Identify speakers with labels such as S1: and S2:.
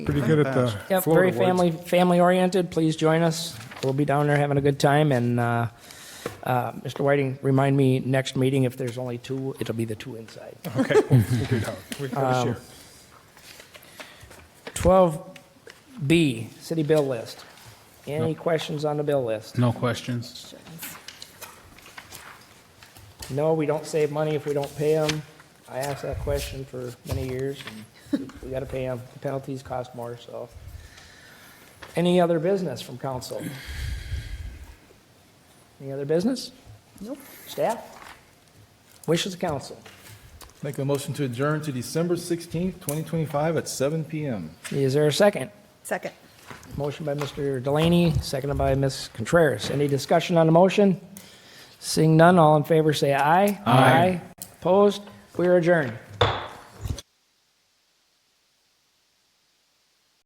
S1: Pretty good at the Florida
S2: Yep, very
S1: words.
S2: family, family-oriented. Please join us. We'll be down there having a good time, and uh, uh, Mr. Whiting, remind me next meeting, if there's only two, it'll be the two inside.
S1: Okay, we'll figure it out. We gotta share.
S2: 12B, city bill list. Any questions on the bill list?
S3: No questions.
S2: No, we don't save money if we don't pay them. I asked that question for many years, and we gotta pay them. The Penalties cost more, so. Any other business from council? Any other business?
S4: Nope.
S2: Staff? Wishes of council?
S5: Make a motion to adjourn to December 16th, 2025 at 7 PM.
S2: Is there a second?
S4: Second.
S2: Motion by Mr. Delaney, seconded by Ms. Contreras. Any discussion on the motion? Seeing none, all in favor say aye. Aye. Opposed? We are adjourned.